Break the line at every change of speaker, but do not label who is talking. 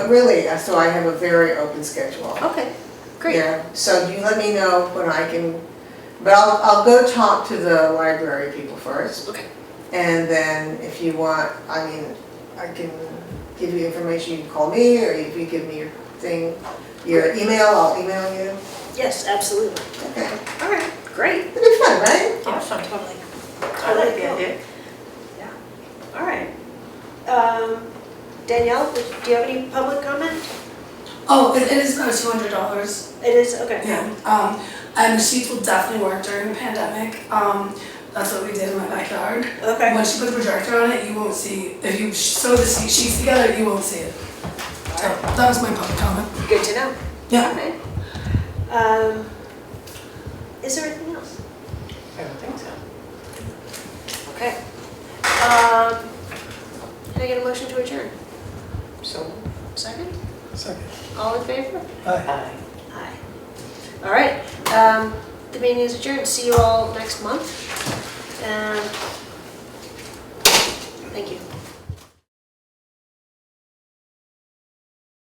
Really, uh, so I have a very open schedule.
Okay, great.
Yeah, so you let me know when I can, but I'll, I'll go talk to the library people first.
Okay.
And then if you want, I mean, I can give you information, you can call me, or if you give me your thing, your email, I'll email you.
Yes, absolutely.
Okay,
All right, great.
it'll be fun, right?
Awesome.
Totally.
I like the idea.
Yeah.
All right. Um, Danielle, would- do you have any public comment?
Oh, it, it is now two hundred dollars.
It is, okay.
Yeah. Um, and the sheets will definitely work during the pandemic. Um, that's what we did in my backyard.
Okay.
Once you put the projector on it, you won't see. If you sew the se- sheets together, you won't see it. So that was my public comment.
Good to know.
Yeah.
Okay. Um, is there anything else?
I don't think so.
Okay. Um, can I get a motion to adjourn?
So,
Second?
Second.
All in favor?
Aye.
aye.
Aye. All right, um, the meeting is adjourned. See you all next month. Um, thank you.